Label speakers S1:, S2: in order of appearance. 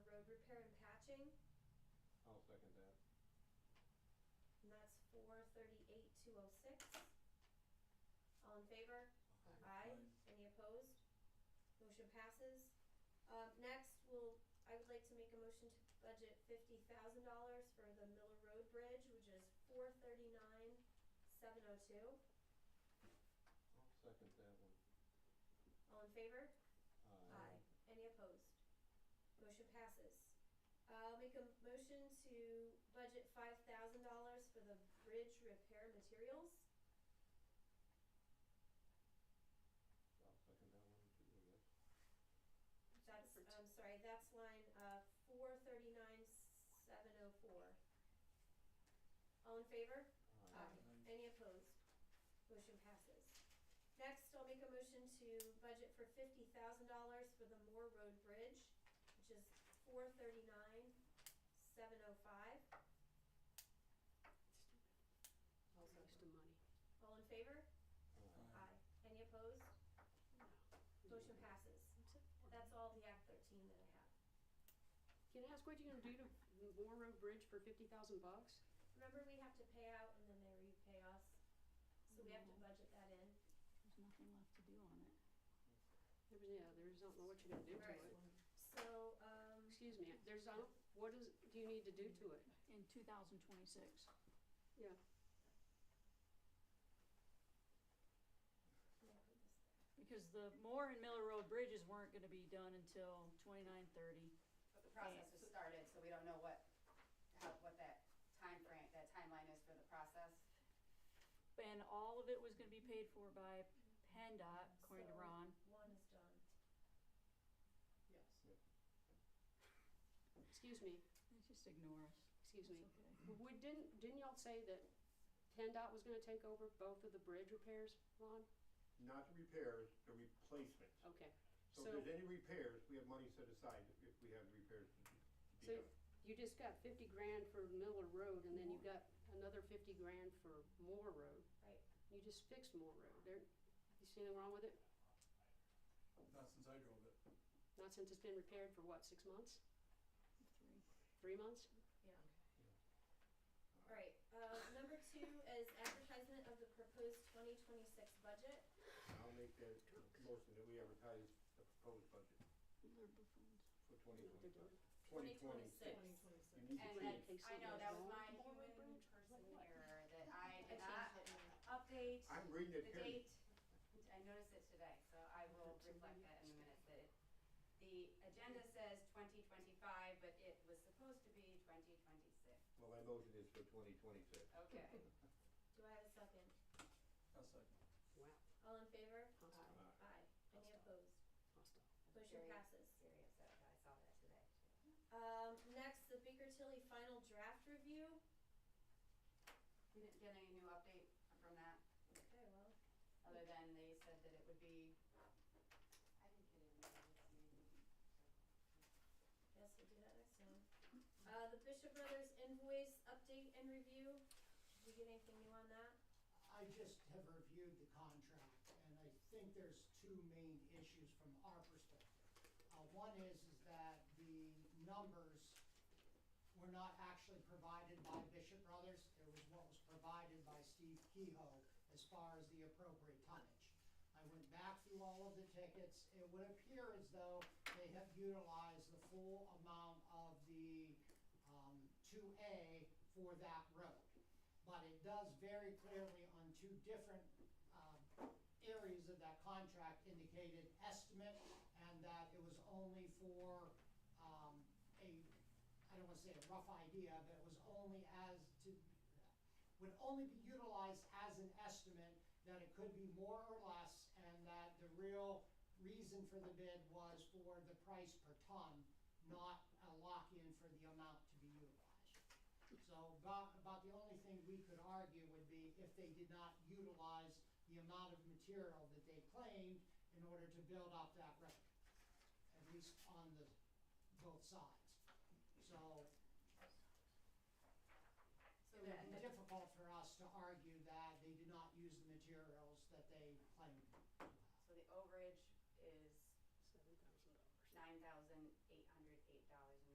S1: I'll second that.
S2: And that's four thirty-eight, two oh six. All in favor? Aye. Any opposed? Motion passes. Uh, next, we'll, I would like to make a motion to budget fifty thousand dollars for the Miller Road Bridge, which is four thirty-nine, seven oh two.
S1: I'll second that one.
S2: All in favor?
S1: Aye.
S2: Any opposed? Motion passes. I'll make a motion to budget five thousand dollars for the bridge repair materials.
S1: I'll second that one too, I guess.
S2: That's, I'm sorry, that's line, uh, four thirty-nine, seven oh four. All in favor? Aye. Any opposed? Motion passes. Next, I'll make a motion to budget for fifty thousand dollars for the Moore Road Bridge, which is four thirty-nine, seven oh five.
S3: Waste of money.
S2: All in favor?
S4: Uh,
S1: Aye.
S2: Aye. Any opposed?
S3: No.
S2: Motion passes. That's all the Act thirteen that I have.
S3: Can I ask what you're gonna do to Moore Road Bridge for fifty thousand bucks?
S2: Remember, we have to pay out and then they repay us, so we have to budget that in.
S5: There's nothing left to do on it.
S3: There was, yeah, there's,
S2: Right.
S3: I don't know what you're gonna do to it.
S2: So, um,
S3: Excuse me, there's, I don't, what is, do you need to do to it?
S5: In two thousand twenty-six,
S3: Yeah,
S2: yeah, put this
S5: because the Moore and Miller Road bridges weren't gonna be done until twenty-nine thirty.
S4: But the process was started, so we don't know what, how, what that timeframe, that timeline is for the process.
S5: And all of it was gonna be paid for by PennDOT, according to
S2: So-
S5: Ron.
S2: there. one is done.
S6: Yes.
S3: excuse me,
S5: They just ignore us.
S3: excuse
S5: It's
S3: me.
S5: okay.
S3: We didn't, didn't y'all say that PennDOT was gonna take over both of the bridge repairs, Ron?
S1: Not the repairs, the replacements.
S3: Okay,
S1: So
S3: So-
S1: if there's any repairs, we have money set aside if- if we have repairs to be
S3: so
S1: done.
S3: you just got fifty grand for Miller Road and then you got another fifty grand for Moore Road.
S2: Right.
S3: You just fixed Moore Road. There, you see anything wrong with it?
S6: Not since I drove it.
S3: Not since it's been repaired for what, six months?
S5: Three.
S3: Three months?
S2: Yeah. Alright, uh, number two is advertisement of the proposed twenty twenty-six budget.
S1: I'll make that motion that we advertise the proposed budget
S5: They're buffoons.
S1: for
S3: No,
S1: twenty
S3: they're
S1: twenty-five.
S3: done.
S1: Twenty twenty-six.
S2: Twenty twenty-six.
S1: You need to
S4: And
S1: change.
S4: then, I know, that was my human
S3: Bridge.
S4: person error, that I did
S2: Ah.
S4: not update
S1: I'm reading
S4: the
S1: it here.
S4: date. I noticed it today, so I will reflect that in a minute, that it, the agenda says twenty twenty-five, but it was supposed to be twenty twenty-six.
S1: Well, my motion is for twenty twenty-six.
S4: Okay.
S2: Do I have a second?
S6: I'll second.
S3: Wow,
S2: All in favor?
S3: hostile,
S2: Aye. Any opposed?
S3: hostile.
S2: Motion
S4: Very-
S2: passes.
S4: Very upset, that I saw that today, too.
S2: Um, next, the Baker Tilly final draft review.
S4: We didn't get any new update from that?
S2: Okay, well,
S4: other than they said that it would be, I didn't get it in there.
S2: Yes, we'll do that next time. Uh, the Bishop Brothers invoice update and review, did we get anything new on that?
S7: I just have reviewed the contract, and I think there's two main issues from our perspective. Uh, one is, is that the numbers were not actually provided by Bishop Brothers, it was what was provided by Steve Kehoe as far as the appropriate tonnage. I went back through all of the tickets, it would appear as though they have utilized the full amount of the, um, two A for that road but it does very clearly on two different um, areas of that contract indicated estimate, and that it was only for um, a, I don't want to say a rough idea, but it was only as to, would only be utilized as an estimate, that it could be more or less, and that the real reason for the bid was for the price per ton, not a lock-in for the amount to be utilized. So about, about the only thing we could argue would be if they did not utilize the amount of material that they claimed in order to build up that road, at least on the, both sides. So
S4: So
S7: it would be
S4: that,
S7: difficult for us to argue that they did not use the materials that they